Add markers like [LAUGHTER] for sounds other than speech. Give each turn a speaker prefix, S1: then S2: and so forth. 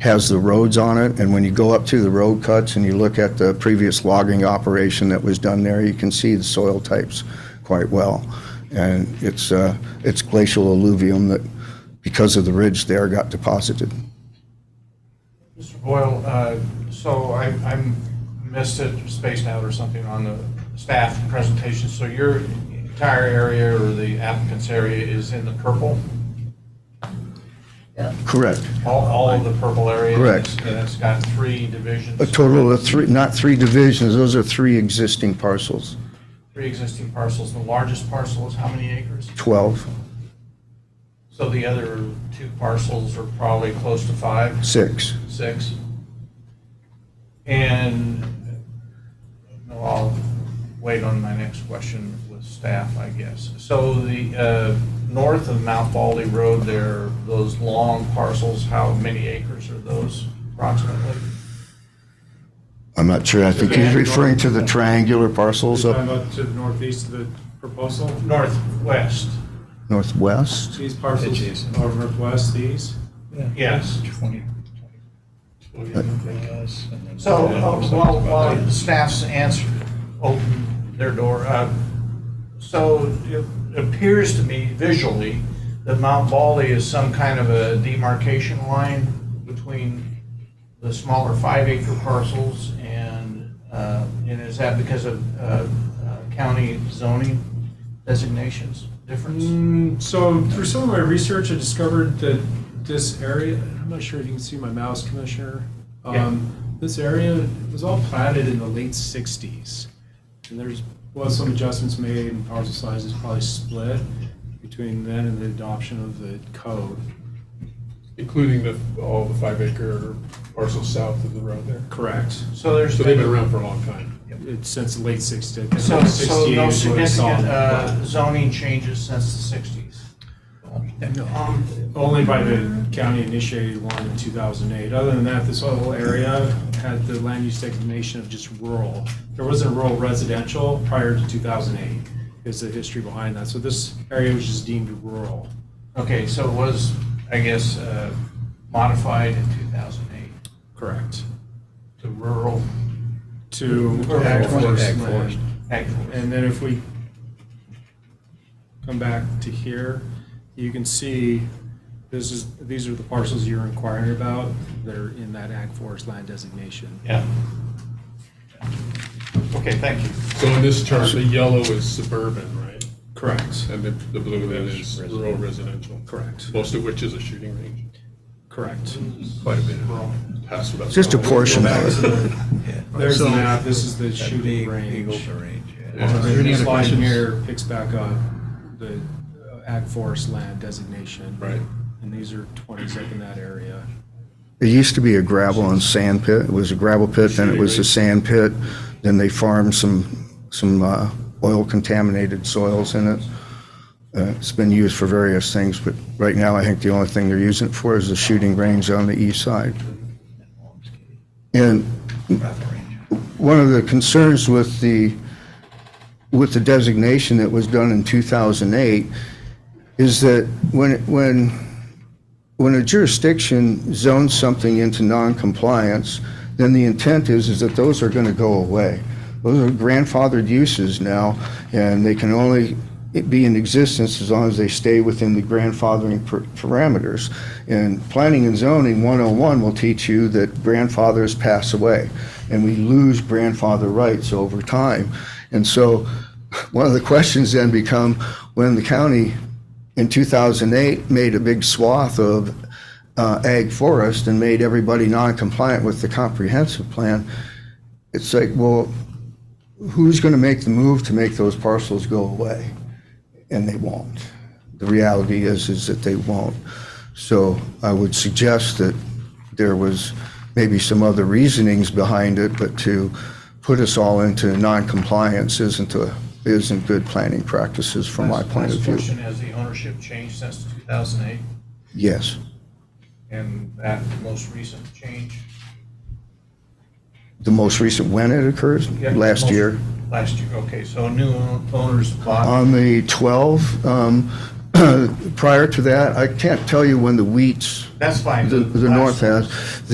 S1: has the roads on it, and when you go up to the road cuts and you look at the previous logging operation that was done there, you can see the soil types quite well. And it's, uh, it's glacial alluvium that, because of the ridge there, got deposited.
S2: Mr. Boyle, uh, so I I missed it, spaced out or something on the staff presentation. So your entire area or the applicant's area is in the purple?
S1: Correct.
S2: All all of the purple area?
S1: Correct.
S2: And it's got three divisions?
S1: A total of three, not three divisions, those are three existing parcels,
S2: Three existing parcels. The largest parcel is how many acres?
S1: 12,
S2: So the other two parcels are probably close to five?
S1: six.
S2: six. And no, I'll wait on my next question with staff, I guess. So the, uh, north of Mount Baldy Road there, those long parcels, how many acres are those approximately?
S1: I'm not sure, I think he's referring to the triangular parcels
S3: You're
S1: up
S3: talking about to the northeast of the proposal?
S2: Northwest,
S1: northwest?
S3: These parcels
S4: Adjacent.
S3: are northwest, these?
S2: yes.
S4: 20.
S2: So uh, while, while staff's answer, open their door, uh, so it appears to me visually that Mount Baldy is some kind of a demarcation line between the smaller five acre parcels and, uh, and is that because of uh, uh, county zoning designations difference?
S3: Mm, So through some of my research, I discovered that this area, I'm not sure if you can see my mouse, Commissioner.
S2: Yeah.
S3: Um, This area was all platted in the late sixties. And there's, was some adjustments made and parcel sizes probably split between then and the adoption of the code.
S5: Including the, all the five acre parcels south of the road there.
S3: Correct.
S2: So there's.
S5: So they've been around for a long time.
S3: It's since the late sixties.
S2: So, so no significant uh, zoning changes since the sixties? uh, um,
S3: Only by the county initiated one in 2008. Other than that, this whole area had the land use designation of just rural. There wasn't rural residential prior to 2008 is the history behind that. So this area was just deemed rural.
S2: Okay, so it was, I guess, uh, modified in 2008
S3: Correct.
S2: to rural
S3: To.
S2: Rural.
S3: ag forest
S4: Ag
S3: land.
S4: forest.
S2: ag forest.
S3: And then if we come back to here, you can see this is, these are the parcels you're inquiring about that are in that ag forest land designation.
S2: Yeah. Okay, thank you.
S5: So in this chart, the yellow is suburban, right?
S3: Correct.
S5: And the, the blue then is rural residential.
S3: Correct.
S5: Most of which is a shooting range.
S3: Correct.
S5: Quite a bit of pass without.
S1: Just a portion of it.
S3: There's the map, this is the shooting range.
S5: Yeah.
S3: And This line here picks back up the uh, ag forest land designation.
S5: Right.
S3: And these are twenties up in that area.
S1: It used to be a gravel and sand pit. It was a gravel pit, then it was a sand pit. Then they farmed some, some uh, oil contaminated soils in it. Uh, It's been used for various things, but right now I think the only thing they're using it for is the shooting range on the east side. And one of the concerns with the, with the designation that was done in 2008 is that when, it- when when a jurisdiction zones something into noncompliance, then the intent is, is that those are going to go away. Those are grandfathered uses now, and they can only be in existence as long as they stay within the grandfathering per- parameters. And planning and zoning 101 will teach you that grandfathers pass away, and we lose grandfather rights over time. And so, [LAUGHS] one of the questions then become, when the county in 2008 made a big swath of uh, ag forest and made everybody non-compliant with the comprehensive plan. It's like, well, who's going to make the move to make those parcels go away? And they won't. The reality is, is that they won't. So I would suggest that there was maybe some other reasonings behind it, but to put us all into non-compliance isn't a, isn't good planning practices from my
S2: Last-
S1: point of
S2: last
S1: view.
S2: question, has the ownership changed since 2008
S1: Yes.
S2: and that most recent change?
S1: The most recent, when it occurs?
S2: Yeah,
S1: Last
S2: most-
S1: year.
S2: Last year, okay, so new owners bought,
S1: On the 12, um, [CLEARS THROAT] prior to that, I can't tell you when the wheats,
S2: that's fine.
S1: the the
S2: last-
S1: north has.